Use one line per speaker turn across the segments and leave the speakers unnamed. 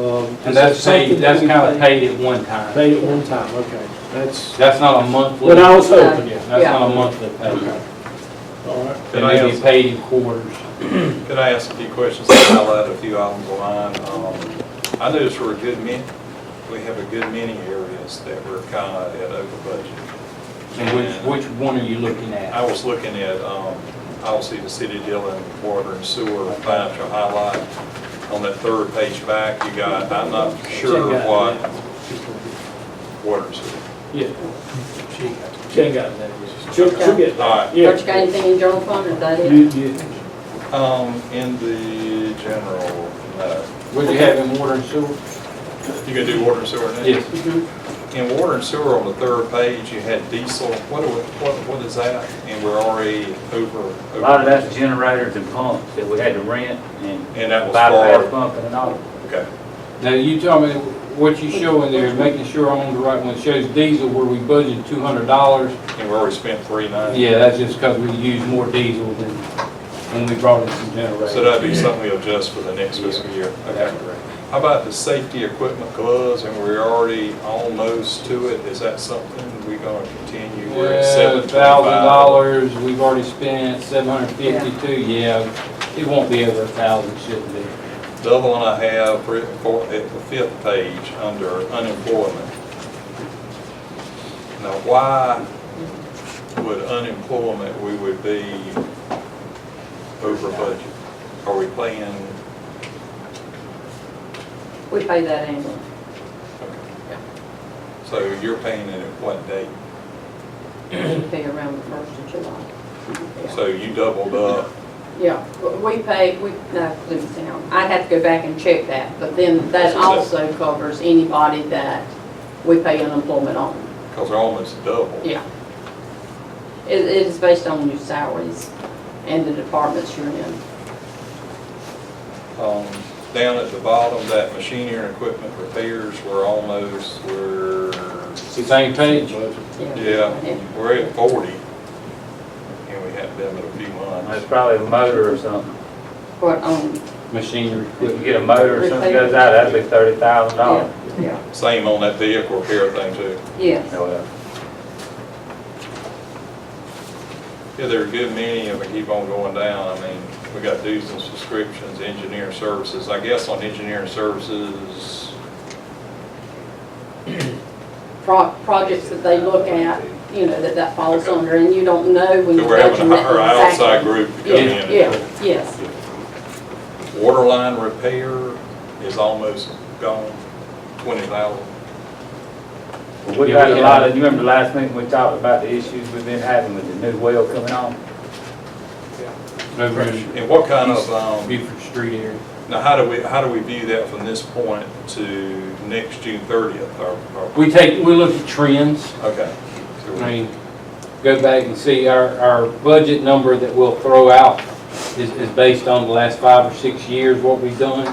Um,
And that's
is that
paid,
something
that's
that we
kind of paid at one time.
Paid at one time, okay. That's
That's not a monthly,
what I
that's
was hoping, yeah.
Yeah.
not a monthly payment.
Okay. All right.
It
Could I
may be
ask,
paid in quarters.
could I ask a few questions, I'll highlight a few items of mine. Um, I noticed we're a good many, we have a good many areas that we're kind of at over budget.
And which, which one are you looking
I
at?
was looking at, um, obviously, the city dealing with water and sewer financial highlight. On that third page back, you got, I'm not sure
Check out that.
what water and sewer.
Yeah. She ain't got that. She'll, she'll get
All
that.
Don't
right.
you got
Yeah.
anything in general fund or that
You,
it?
you,
Um, in the general, no.
Would you have in water and sewer?
You gonna do water and sewer next?
Yes.
Mhm.
In water and sewer, on the third page, you had diesel, what, do we- what, what is that? And we're already over.
A lot of that's generators and pumps that we had to rent and
And that was
bypass
far,
pumping and all.
okay.
Now, you tell me, what you show in there, making sure I'm on the right one, It shows diesel where we budgeted two hundred dollars.
And we already spent three ninety.
Yeah, that's just because we used more diesel than when we brought in some generators.
So that'd be something we adjust for the next fiscal year.
That's
Okay. How about the safety equipment gloves, and we're already almost to it, is that something we're gonna continue? We're at
Thousand
$725.
dollars, we've already spent seven hundred fifty-two, yeah, it won't be over a thousand, shouldn't be.
The other one I have, for- for- at the fifth page, under unemployment. Now, why would unemployment, we would be over budget? Are we paying,
We pay that annually.
so you're paying it at what date?
We pay around the first of July. Yeah.
So you doubled up,
Yeah, w- we pay, we, no, leave it down. I'd have to go back and check that, but then that also covers anybody that we pay unemployment on.
because they're almost double.
Yeah. It, it is based on your salaries and the departments you're in.
Um, Down at the bottom, that machinery and equipment repairs, we're almost, we're,
Same page?
yeah,
And
we're at 40. And we have them in a few months.
That's probably a motor or something.
What, on,
Machinery,
If you
equipment.
get a motor or something goes out, that'd be thirty thousand dollars.
yeah, yeah,
Same on that vehicle repair thing too.
yes.
Oh,
Yeah, there are a good many, and we keep on going down. I mean, we got dues and subscriptions, engineering services. I guess on engineering services,
pro- projects that they look at, you know, that that falls under, and you don't know when you
we're
budget.
having our outside group to come in. and-
Yeah, yes,
Water line repair is almost gone, 20,000.
But We've had a lot of, you remember last meeting, we talked about the issues we've been having with the new well coming on?
over in
And what kind of, um,
Beaufort Street area.
now how do we, how do we view that from this point to next June 30th? Or, or-
We take, we look at trends,
okay. So we-
I mean, go back and see, our, our budget number that we'll throw out is, is based on the last five or six years, what we've done.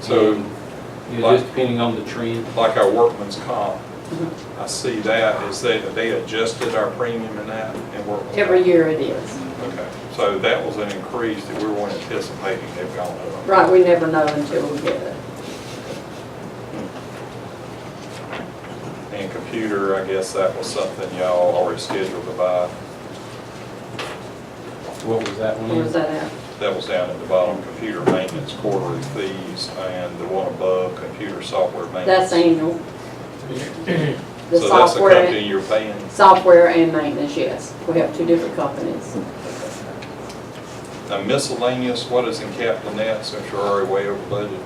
So
You know, just depending on the trend.
like our workman's comp, I see that, is that they adjusted our premium in that and workman's?
every year it is.
Okay, so that was an increase that we weren't anticipating, they've gone up.
Right, we never know until we get it.
And computer, I guess that was something y'all already scheduled to buy,
What was that one?
Or is that out?
that was down at the bottom, computer maintenance quarterly fees, and the one above, computer software maintenance.
That's annual. The
Mm-hmm. So that's the
software,
company you're paying,
software and maintenance, yes. We have two different companies. Uh,
now miscellaneous, what is in capital net, since you're already way over budget?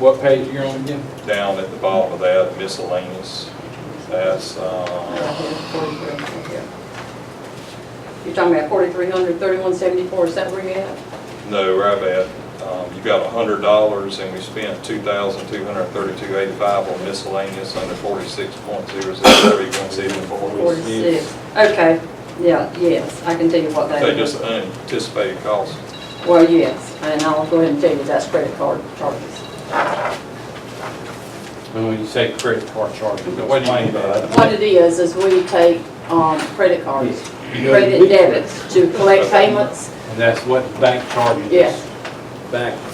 What page you're on again?
Down at the bottom of that, miscellaneous, that's,
Right
uh,
here, 43, right here. You're talking about forty-three hundred, thirty-one seventy-four, is that where you at?
No, right at, um, you got a hundred dollars and we spent two thousand two hundred thirty-two eighty-five on miscellaneous under forty-six point zero zero three one seven four.
Forty-six. Okay, yeah, yes, I can tell you what that
They
is.
just unanticipated costs.
Well, yes, and I'll go ahead and tell you that's credit card charges.
And when you say credit card charges,
What do you mean by that?
What it is, is we take, um, credit cards,
go to
credit
big
debits to collect payments,
And that's what the bank charges.
yes.
Back